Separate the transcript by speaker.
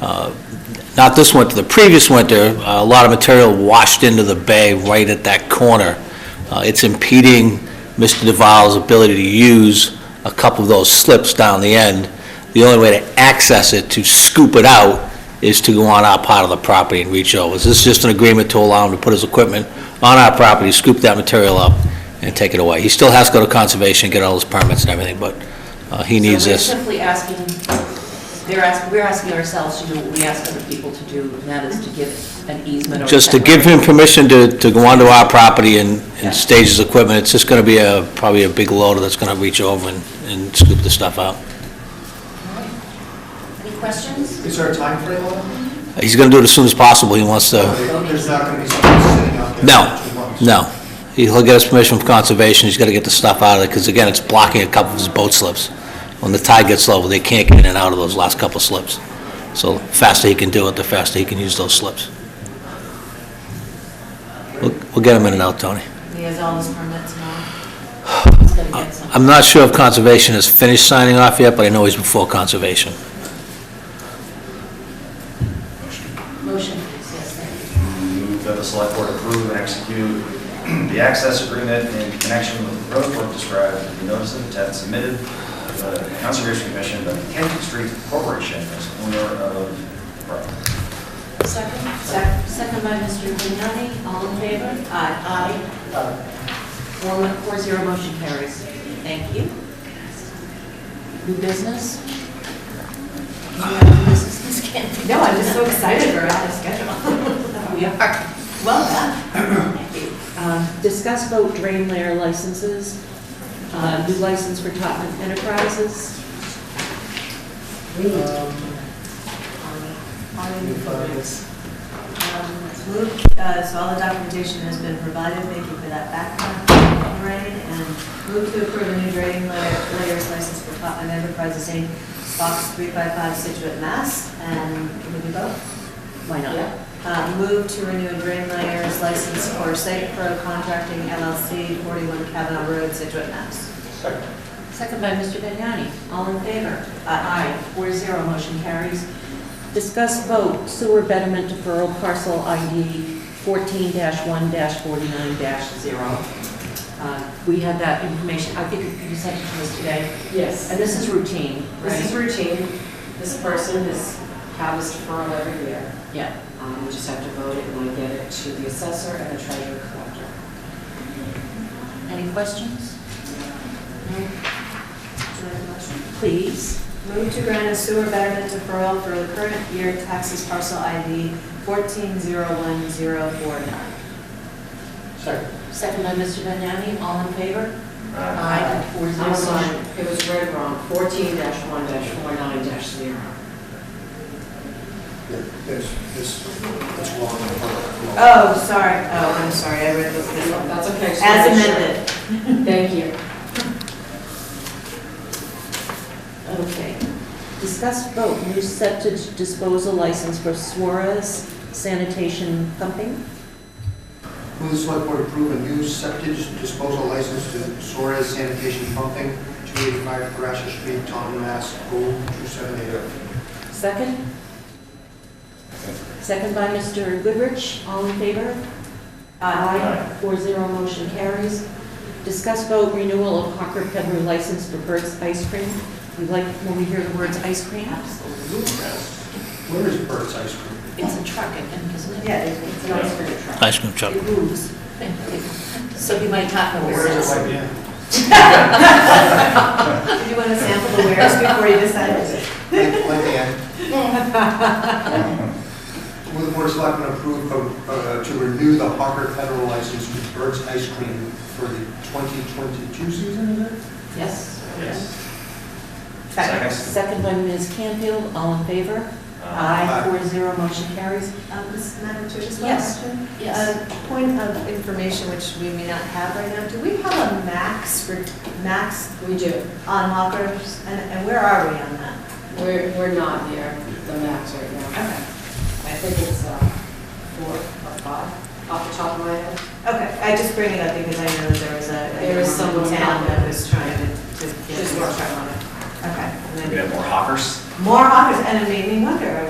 Speaker 1: uh, not this winter, the previous winter, uh, a lot of material washed into the bay right at that corner. Uh, It's impeding Mr. DeVal's ability to use a couple of those slips down the end. The only way to access it, to scoop it out, is to go on our part of the property and reach over. Is this just an agreement to allow him to put his equipment on our property, scoop that material up, and take it away? He still has to go to conservation, get all his permits and everything, but uh, he needs this.
Speaker 2: So we're simply asking, they're asking, we're asking ourselves to do what we ask other people to do, and that is to give an easement or...
Speaker 1: Just to give him permission to, to go onto our property and, and stage his equipment, it's just gonna be a, probably a big loader that's gonna reach over and, and scoop the stuff out.
Speaker 2: Any questions?
Speaker 3: Is there a timeframe on
Speaker 1: He's gonna do it as soon as possible, he wants to,
Speaker 3: it? There's not going to be something sitting out there?
Speaker 1: no,
Speaker 3: for two months?
Speaker 1: no. He'll get his permission from conservation, he's gotta get the stuff out of it, because again, it's blocking a couple of his boat slips. When the tide gets low, they can't get in and out of those last couple of slips. So faster he can do it, the faster he can use those slips. We'll, we'll get him in and out, Tony.
Speaker 2: He has all his permits now. He's gonna get some.
Speaker 1: I'm not sure if Conservation has finished signing off yet, but I know he's before Conservation.
Speaker 2: Motion, please, yes, thank you.
Speaker 4: Move that the select board approve and execute the access agreement in connection with the road work described in the notice of intent submitted to the Conservation Commission by the Kennedy Street Corporation as owner of the property.
Speaker 2: Second, sec- second by Mr. Vignani, all in favor? Aye. Aye. Four, four zero, motion carries. Thank you. New business? Do you have new business, Ms. Canty?
Speaker 5: No, I'm just so excited we're on the schedule.
Speaker 2: We are. Well done. Thank you. Um, Discuss vote drain layer licenses, uh, new license for Topman Enterprises.
Speaker 6: Moved, Um, uh, so all the documentation has been provided, thank you for that background, Lorraine, and move to approve a new drain layer- layers license for Topman Enterprises, Inc., Box 355, Situate, Mass. And can we do both?
Speaker 2: Why not?
Speaker 6: Uh, Move to renew a drain layers license for Safe Pro Contracting LLC, 41 Kavanaugh Road, Situate, Mass.
Speaker 2: Second by Mr. Vignani. All in favor? Aye. Four zero, motion carries.
Speaker 5: Discuss vote sewer betterment deferral parcel ID 14-1-49-0.
Speaker 2: Uh, We had that information, I think you sent it to us today.
Speaker 5: Yes,
Speaker 2: And this is routine,
Speaker 5: this is
Speaker 2: right?
Speaker 5: routine. This person has had this deferral every year.
Speaker 2: Yeah.
Speaker 5: Um, We just have to vote it and we get it to the assessor and the treasurer collector.
Speaker 2: Any questions? No? Please.
Speaker 6: Move to grant a sewer betterment deferral for the current year taxes parcel ID 1401049.
Speaker 2: Second by Mr. Vignani. All in favor? Four
Speaker 6: Mm-hmm.
Speaker 5: I'm sorry,
Speaker 2: zero.
Speaker 5: it was read wrong, 14-1-49-0.
Speaker 3: There's, this, that's wrong.
Speaker 2: Uh.
Speaker 6: Oh, sorry, oh, I'm sorry, I read this this one.
Speaker 5: That's okay. just
Speaker 6: As
Speaker 5: wanna make sure.
Speaker 6: amended.
Speaker 5: Thank you.
Speaker 2: Okay.
Speaker 5: Discuss vote new septic disposal license for Suarez sanitation pumping.
Speaker 3: Move the select board approve a new septic disposal license to Suarez Sanitation Pumping, 285 Grashit Street, Taunton, Mass. 02780.
Speaker 5: Second?
Speaker 2: Second by Mr. Goodrich. All in favor?
Speaker 4: Aye.
Speaker 2: Four zero, motion carries.
Speaker 5: Discuss vote renewal of Hawker Pedler license for Bert's Ice Cream. We like when we hear the words ice cream.
Speaker 3: Where is Burt's Ice Cream?
Speaker 2: It's a truck, I think, isn't it?
Speaker 6: Yeah, it's it's an ice cream truck.
Speaker 1: Ice cream truck.
Speaker 2: It moves. So he might not know where it is.
Speaker 3: Right, yeah.
Speaker 6: Did you want to sample the wares before you decided?
Speaker 3: Like like the end. Move the board of selectmen approve of, uh, to renew the Hawker Federal license with Burt's Ice Cream for the 2022 season, is it?
Speaker 5: Yes.
Speaker 4: Yes. Second.
Speaker 5: Second by Ms. Canfield, all in favor?
Speaker 4: Uh,
Speaker 3: Aye.
Speaker 5: Four zero, motion carries.
Speaker 6: Um, Ms. Madam Chair, just one
Speaker 2: Yes.
Speaker 6: question.
Speaker 2: Yes.
Speaker 6: A point of information which we may not have right now, do we have a max, for max
Speaker 5: We do.
Speaker 6: on hawkers? And and where are we on that?
Speaker 5: We're, we're not near the max right now.
Speaker 6: Okay.
Speaker 5: I think it's uh, four or five off the top of my head.
Speaker 6: Okay, I just bring it up because I know there was a.
Speaker 5: There was someone
Speaker 6: in town
Speaker 5: on
Speaker 6: that
Speaker 5: it.
Speaker 6: was trying to, to get
Speaker 5: Just
Speaker 6: more
Speaker 5: work.
Speaker 6: time on it. Okay.
Speaker 4: We
Speaker 6: and then
Speaker 4: have more hoppers?
Speaker 6: More offers, and it made me wonder,